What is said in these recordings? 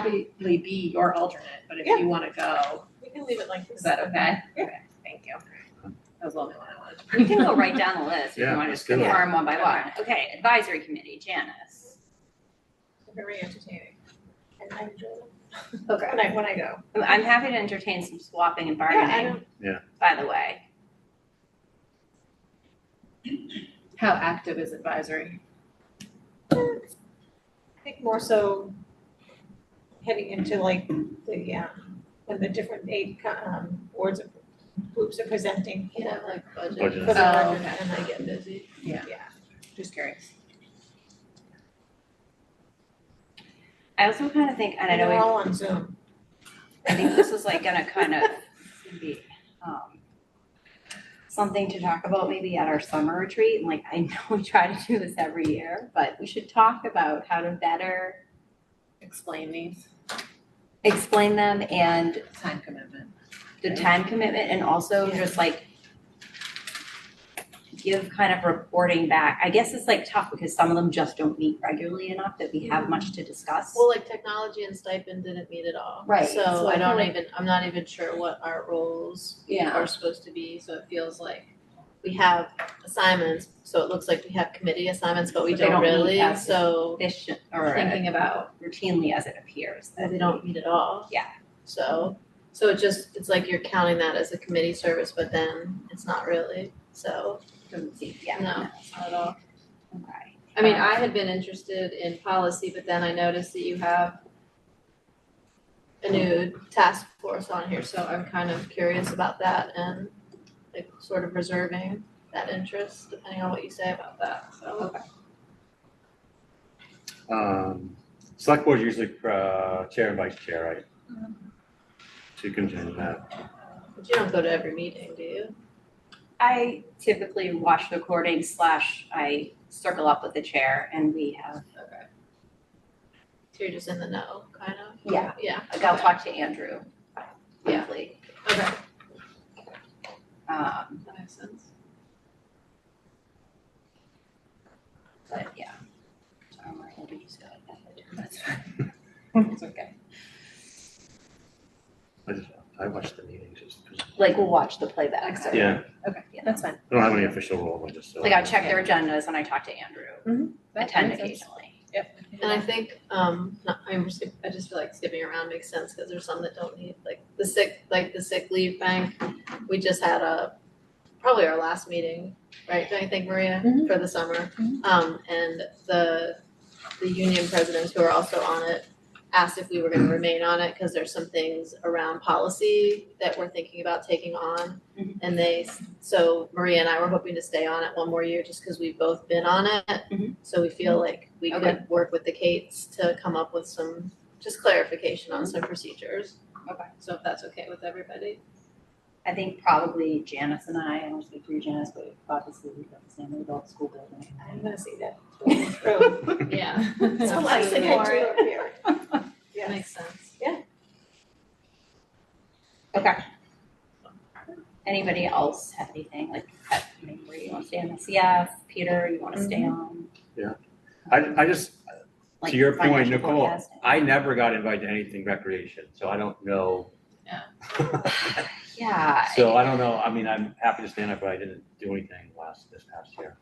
happily be your alternate, but if you wanna go, We can leave it like this. is that okay? Okay, Thank you. That was the only one I wanted. We can go right down the list, if Yeah, you want to let's just do it. confirm one by one. Okay, advisory committee, Janice. Very entertaining. And I enjoy them. Okay. When I, when I go. I'm- I'm happy to entertain some swapping and I bargaining, don't- by the way. How active is advisory? I think more so heading into like the, um, when the different eight, um, boards and groups are presenting, you know, like Budget. for the Oh, record, okay. and I get busy. Yeah. Yeah. Just curious. I also kind of think, and I And know, they're we- all on Zoom. I think this is like gonna kind of be, um, something to talk about maybe at our summer retreat, and like, I know we try to do this every year, but we should talk about how to better Explain these, explain them and time commitment. the Right. time commitment and also Yeah. just like give kind of reporting back. I guess it's like tough because some of them just don't meet regularly enough that we have much to discuss. Well, like technology and stipend didn't meet at all. Right, so So I I don't feel even, I'm not even sure what our roles Yeah. are supposed to be, so it feels like we have assignments, so it looks like we have committee assignments, but we But they don't don't meet really, as- so This should, or uh, thinking about routinely as it appears that that they don't meet at all. Yeah. So, so it just, it's like you're counting that as a committee service, but then it's not really, so, doesn't seem, yeah. no, not at all. Okay. I mean, I had been interested in policy, but then I noticed that you have a new task force on here, so I'm kind of curious about that and like sort of reserving that interest depending on what you say about that, so. Um, select board usually, uh, chair and vice chair, right? So you can change that. But you don't go to every meeting, do you? I typically watch the recording slash I circle up with the chair and we have, Okay. So you're just in the know, kind of? yeah, Yeah, like I'll talk to Andrew. Yeah. monthly. okay, Um, that makes sense. But yeah. So I'm like, let me just go like that. That's fine. Hmm. It's okay. I just, I watch the meetings just because Like we'll watch the playback. Excellent. Yeah. Okay, Yeah. that's fine. I don't have any official role, I just. uh, Like I check their agendas and I talk to Andrew. Mm-hmm. That Attend makes sense. occasionally. Yep. And I think, um, not, I'm just, I just feel like skipping around makes sense, cause there's some that don't need, like, the sick, like the sick leave bank, we just had a, probably our last meeting, right, don't you think, Maria, Mhm. for the summer? Mhm. Um, and the, the union presidents who are also on it asked if we were gonna remain on it, cause there's some things around policy that we're thinking about taking on. Mhm. And they, so Maria and I were hoping to stay on it one more year, just cause we've both been on it. Mhm. So we feel like we Okay. could work with the Kates to come up with some, just clarification on some procedures. Okay. So if that's Mm-hmm. okay with everybody. I think probably Janice and I, I don't speak for you, Janice, but obviously we've got the same adult school building. I'm gonna see that. True. Yeah. So I think I do up here. Yes. Makes sense. Okay. Anybody else have anything like, I mean, where you want to stay on the CF? Peter, you want to stay Mm-hmm. on? Yeah. I, I just, like, To your point, financial Nicole, forecasting? I never got invited to anything recreation, so I don't know. Yeah. So I don't know, I mean, I'm happy to stand up, but I didn't do anything last, this past year.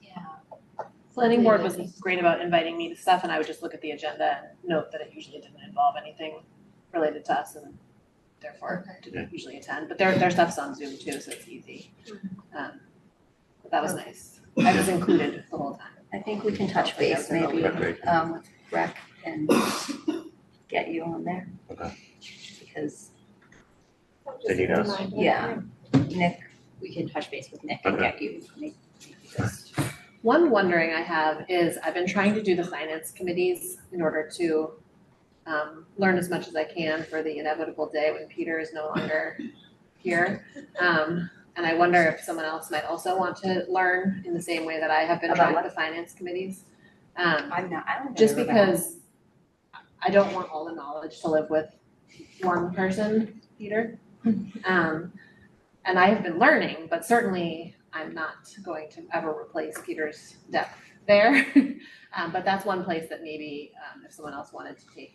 Yeah. Planning board was great about inviting me to stuff and I would just look at the agenda and note that it usually didn't involve anything related to us and therefore Yeah. didn't usually attend, but their, their stuff's on Zoom too, so it's easy. Um, But that was nice. I was included the whole time. I think we can touch base maybe, Recreation. um, with rec and get you on there. Okay. Because They need us. Yeah. Nick, we can touch base with Nick and Okay. get you, make, make you just, One wondering I have is I've been trying to do the finance committees in order to um, learn as much as I can for the inevitable day when Peter is no longer here. Um, and I wonder if someone else might also want to learn in the same way that I have been About trying what? the finance committees. Um, I'm not, I don't. think just I've ever because I don't want all the knowledge to live with one person, Peter. Um, and I have been learning, but certainly I'm not going to ever replace Peter's depth there. Um, but that's one place that maybe, um, if someone else wanted to take